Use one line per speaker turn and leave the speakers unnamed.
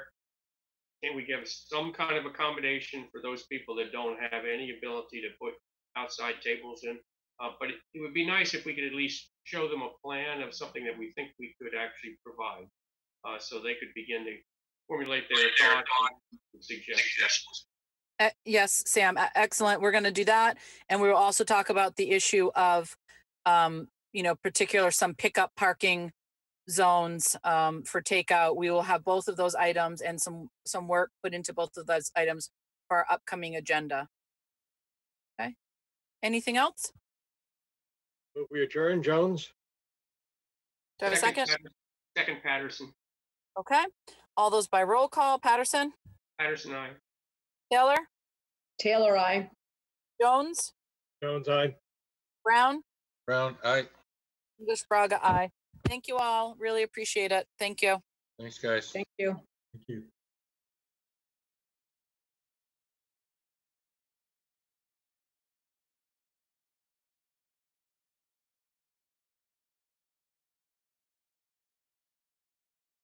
Can we give some kind of accommodation for those people that don't have any ability to put outside tables in? Uh, but it, it would be nice if we could at least show them a plan of something that we think we could actually provide, uh, so they could begin to formulate their thoughts and suggestions.
E- Yes, Sam, e- excellent. We're going to do that. And we will also talk about the issue of, um, you know, particular some pickup parking zones um, for takeout. We will have both of those items and some, some work put into both of those items for our upcoming agenda. Okay. Anything else?
Move We adjourn, Jones?
Do I have a second?
Patterson- Second Patterson,
Okay. All those by roll call. Patterson,
Patterson, I.
Taylor,
Taylor, I.
Jones,
Jones, aye.
Brown,
Brown, aye.
English Braga, I. Thank you all. Really appreciate it. Thank you.
Thanks, guys.
Thank you.
Thank you.